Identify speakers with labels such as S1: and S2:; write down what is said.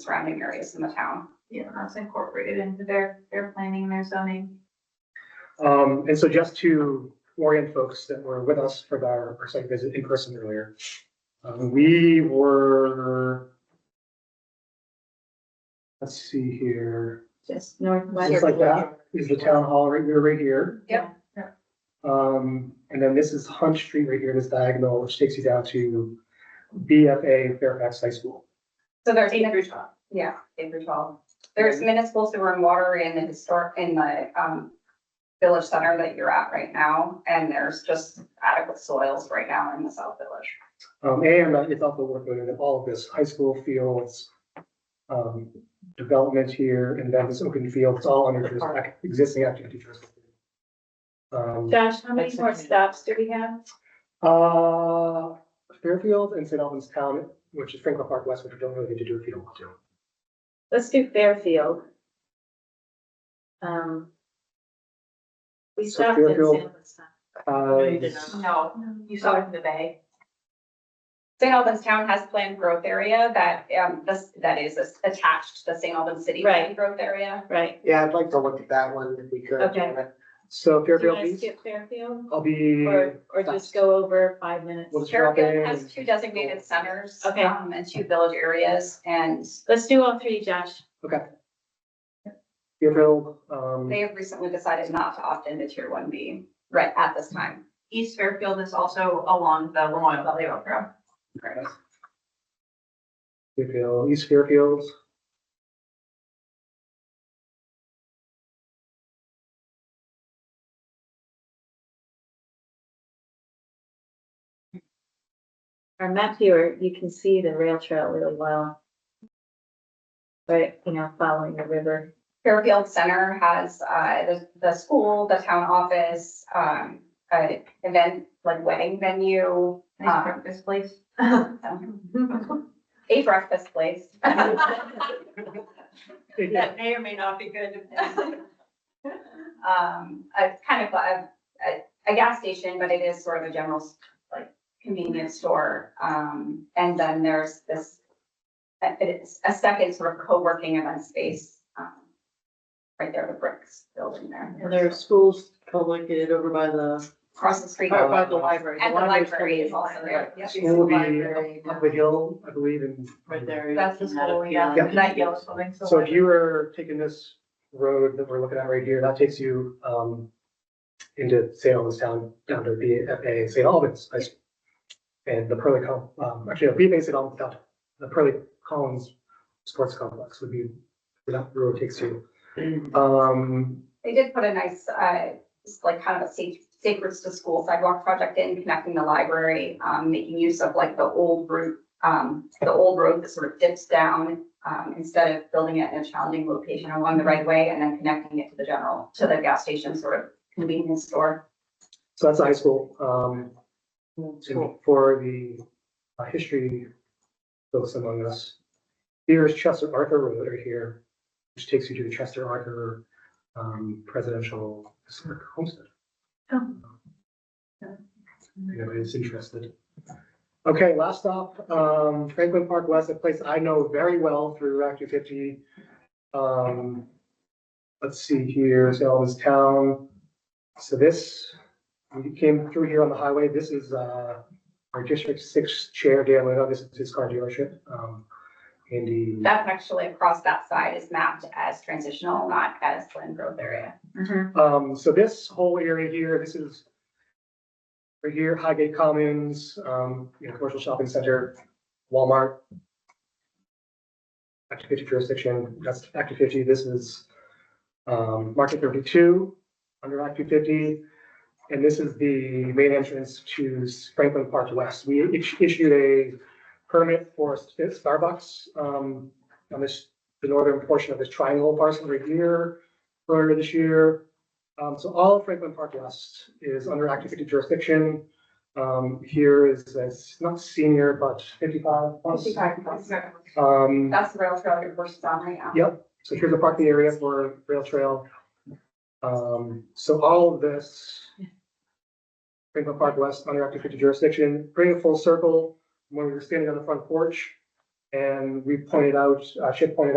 S1: surrounding areas in the town.
S2: Yeah, that's incorporated into their, their planning, their zoning.
S3: Um, and so just to orient folks that were with us for our, our site visit in person earlier, um, we were. Let's see here,
S2: Just
S3: just
S2: northwest.
S3: like that is the town hall right, we were right here.
S1: Yep.
S2: Yeah.
S3: Um, and then this is Hunt Street right here, this diagonal, which takes you down to BFA Fairfax High School.
S1: So there's,
S2: Eight through twelve.
S1: yeah, eight through twelve. There's municipal sewer and water in the historic, in the, um, village center that you're at right now, and there's just adequate soils right now in the South Village.
S3: Um, and uh, it's also worth noting that all of this, high school fields, um, development here, and then this open field, it's all under this ac- existing activity trust. Um,
S2: Josh, how many
S4: That's
S2: more
S4: okay.
S2: stops do we have?
S3: uh, Fairfield and St. Albans Town, which is Franklin Park West, which we don't really need to do if you don't want to.
S2: Let's do Fairfield. Um. We
S3: So
S2: stopped at
S3: Fairfield-
S2: San Luis.
S4: you did
S3: Uh,
S4: not.
S5: No, you saw it in the bay.
S1: St. Albans Town has planned growth area that, um, this, that is attached to the St. Albans City planned
S2: Right.
S1: growth area.
S2: Right.
S6: Yeah, I'd like to look at that one if we could.
S2: Okay.
S3: so
S2: Do you
S3: Fairfield, Hmm.
S2: want to
S3: East,
S2: skip Fairfield
S3: I'll be,
S2: or, or just go over five minutes?
S3: we'll just drop in.
S1: Fairfield has two designated centers.
S2: Okay.
S1: um, And two village areas, and
S2: Let's do all three, Josh.
S3: Fairfield, um,
S1: they have recently decided not to opt into tier one B right at this time.
S5: East Fairfield is also along the Lemoyle Valley Road.
S3: Fairfield, East Fairfield.
S2: Our map here, you can see the rail trail really well. Right, you know, following the river.
S1: Fairfield Center has, uh, the, the school, the town office, um, a event, like wedding venue,
S5: Nice breakfast place.
S1: um, a breakfast place.
S5: That may or may not be good.
S1: Um, a kind of a, a, a gas station, but it is sort of a general, like, convenience store. Um, and then there's this, it's a second sort of co-working event space, um, right there, the bricks building there.
S4: And there are schools co-located over by the,
S1: Across the street.
S4: by the library.
S1: And the
S4: library's
S1: library is
S4: coming
S1: also there. Yep.
S3: School will be
S4: Library.
S3: up the hill, I believe, and.
S4: Right there.
S1: That's the
S4: Had a
S5: school, yeah.
S4: feeling.
S5: That yellow building.
S3: So if you were taking this road that we're looking at right here, that takes you um into St. Albans Town, down to BFA St. Albans. High School. And the Pearly Com, um, actually, no, BFA St. Albans Town, the Pearly Collins Sports Complex would be where that road takes you.
S4: Mm.
S3: Um,
S1: They did put a nice, uh, just like kind of a safe, sacred to school sidewalk project in connecting the library, um, making use of like the old route, um, the old road that sort of dips down, um, instead of building it in a challenging location along the right way and then connecting it to the general, to the gas station sort of convenience store.
S3: so that's the high school. Um,
S4: School.
S3: and for the uh, history folks among us. Here is Chester Arthur Road right here, which takes you to the Chester Arthur um, Presidential Historic Homestead.
S2: Oh.
S3: You know, it's interested. Okay, last stop, um, Franklin Park West, a place I know very well through Act two fifty. Um, let's see here, St. Albans Town. So this, we came through here on the highway. This is, uh, our District Six Chair, Dan Leno, this is his car dealership, um, in the,
S1: That's actually across that side is mapped as transitional, not as land growth area.
S3: um, so this whole area here, this is right here, Highgate Commons, um, you know, commercial shopping center, Walmart. Act fifty jurisdiction, that's Act two fifty, this is, um, Market thirty-two, under Act two fifty. And this is the main entrance to Franklin Park West. We is- issued a permit for Starbucks, um, on this, the northern portion of this triangle parcel right here earlier this year. Um, so all of Franklin Park West is under Act 50 jurisdiction. Um, here is, it's not senior, but fifty-five plus. Um,
S1: That's the rail trail you're versus on right now.
S3: Yep, so here's a parking area for rail trail. Um, so all of this. Franklin Park West, under Act fifty jurisdiction, bring it full circle, when we were standing on the front porch. And we pointed out, uh, Chip pointed